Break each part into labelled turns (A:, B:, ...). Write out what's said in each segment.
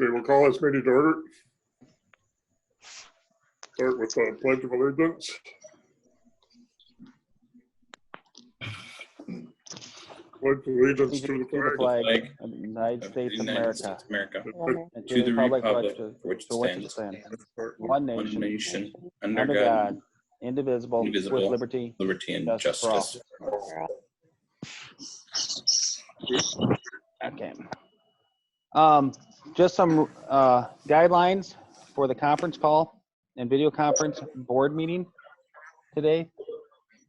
A: Okay, we'll call this meeting to order. Start with the pledge of allegiance. Pledge allegiance to the
B: To the
A: flag.
B: flag
C: flag
B: of the United
C: of the
B: States of
C: United
B: America
C: States of America,
B: and
C: to the republic for which it
B: for which it
C: stands,
B: stands, one
C: one
B: nation,
C: nation, under
B: under
C: God,
B: God, indivisible, with
C: indivisible,
B: liberty.
C: liberty and
B: justice for all.
C: justice.
B: Okay. Um, just some, uh, guidelines for the conference call and video conference board meeting today.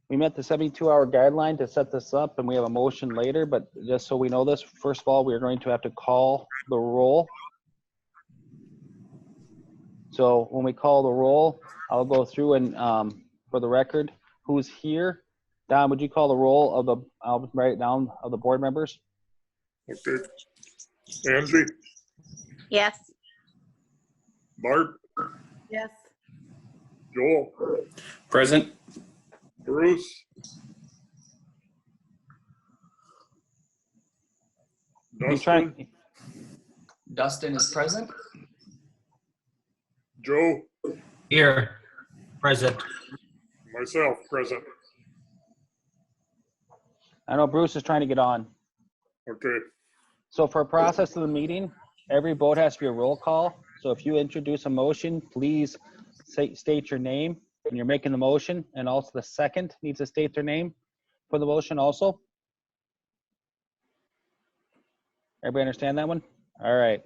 B: We met the seventy-two hour guideline to set this up and we have a motion later, but just so we know this, first of all, we are going to have to call the roll. So when we call the roll, I'll go through and, um, for the record, who's here? Don, would you call the roll of the, I'll write it down of the board members?
A: Okay. Angie,
D: Yes.
A: Barb,
D: Yes.
A: Joel,
C: Present,
A: Bruce.
B: He's
A: Dustin,
B: trying,
E: Dustin is present.
A: Joe,
F: Here, present.
A: myself, present.
B: I know Bruce is trying to get on.
A: Okay,
B: So for process of the meeting, every vote has to be a roll call. So if you introduce a motion, please say, state your name when you're making the motion and also the second needs to state their name for the motion also. Everybody understand that one? All right.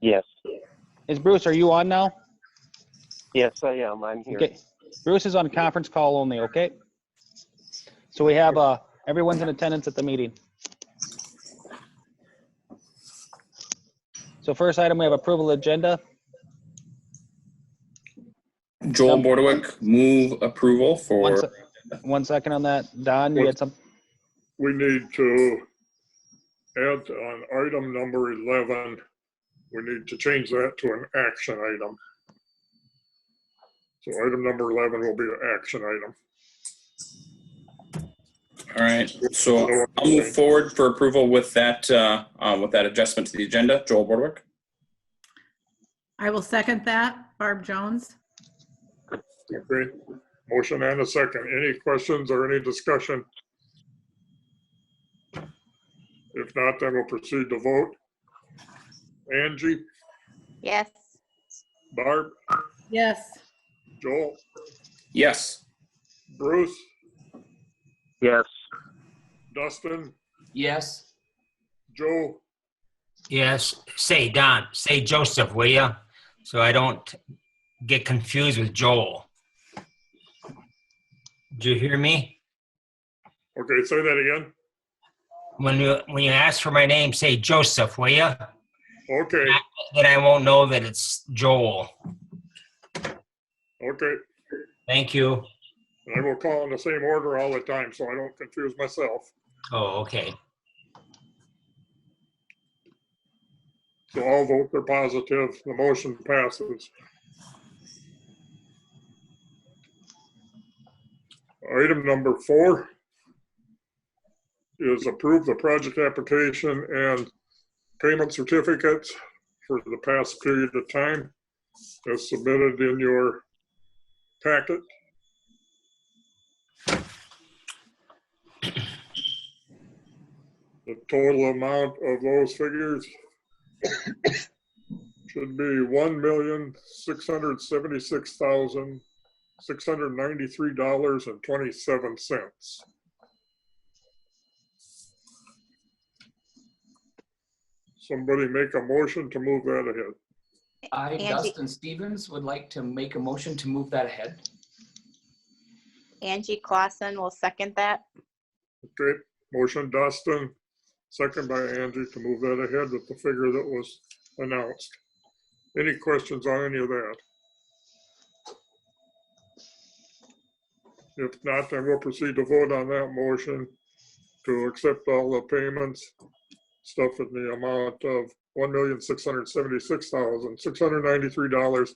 G: Yes,
B: Is Bruce, are you on now?
G: yes, I am. I'm here.
B: Okay, Bruce is on conference call only, okay? So we have, uh, everyone's in attendance at the meeting. So first item, we have approval agenda.
C: Joel
B: Um,
C: Bordewick, move approval
B: One
C: for,
B: se- one second on that. Don, you had some,
A: we need to add on item number 11, we need to change that to an action item. So item number 11 will be an action item.
C: all right, so I'll move forward for approval with that, uh, uh, with that adjustment to the agenda. Joel Bordewick,
D: I will second that. Barb Jones?
A: Okay, motion and a second. Any questions or any discussion? If not, then we'll proceed to vote. Angie,
D: Yes.
A: Barb,
D: Yes.
A: Joel,
C: yes.
A: Bruce,
G: Yes,
A: Dustin,
E: Yes.
A: Joe,
F: Yes, say Don, say Joseph, will ya? So I don't get confused with Joel. Do you hear me?
A: okay, say that again.
F: When you, when you ask for my name, say Joseph, will ya?
A: Okay,
F: Then I won't know that it's Joel.
A: okay.
F: Thank you.
A: And I will call in the same order all the time, so I don't confuse myself.
F: Oh, okay.
A: So all votes are positive, the motion passes. Item number four is approve the project application and payment certificates for the past period of time as submitted in your packet. The total amount of those figures should be one million, six hundred seventy-six thousand, six hundred ninety-three dollars and twenty-seven cents. Somebody make a motion to move that ahead.
E: I,
H: Angie-
E: Dustin Stevens, would like to make a motion to move that ahead.
H: Angie Clausen will second that.
A: Okay, motion Dustin, second by Angie to move that ahead with the figure that was announced. Any questions on any of that? If not, then we'll proceed to vote on that motion to accept all the payments, stuff in the amount of one million, six hundred seventy-six thousand, six hundred ninety-three dollars